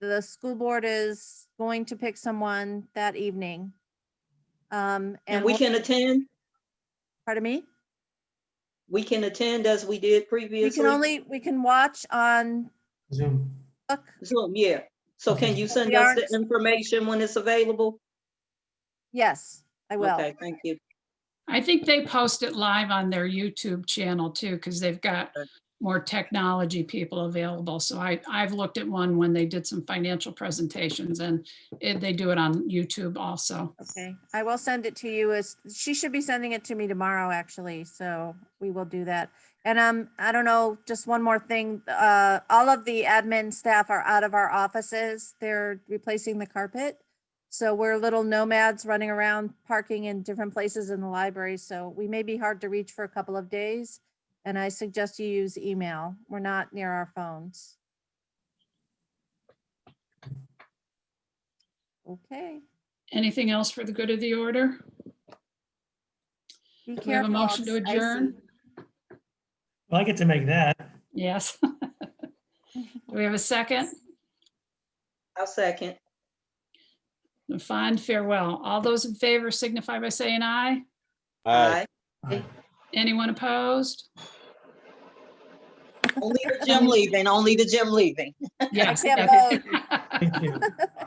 the school board is going to pick someone that evening. Um, And and, we we'll- can attend, pardon me, we can attend as we did previously. we can only, we can watch on Zoom. book. Zoom, yeah. So can you send We us aren't- the information when it's available? Yes, I will. Okay, thank you. I think they post it live on their YouTube channel too, because they've got Okay. more technology people available. So I, I've looked at one when they did some financial presentations and it- they do it on YouTube also. Okay, I will send it to you as, she should be sending it to me tomorrow, actually, so we will do that. And, um, I don't know, just one more thing, uh, all of the admin staff are out of our offices. They're replacing the carpet. So we're little nomads running around parking in different places in the library, so we may be hard to reach for a couple of days. And I suggest you use email. We're not near our phones. Okay. Anything else for the good of the order? Be Do we have a careful. motion to it's icy. adjourn? Well, I get to make that. Yes. Do we have a second? I'll second. A Fond farewell. All those in favor signify by saying aye. Aye. Anyone opposed? Only the gym leaving, only the gym leaving. Yes. can't that's it. Thank you.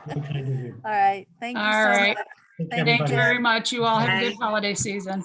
Very kind of you. All right, thank you All so right. much. Thank you, Thank Thank you everybody. very much. You all have a good Bye. holiday season.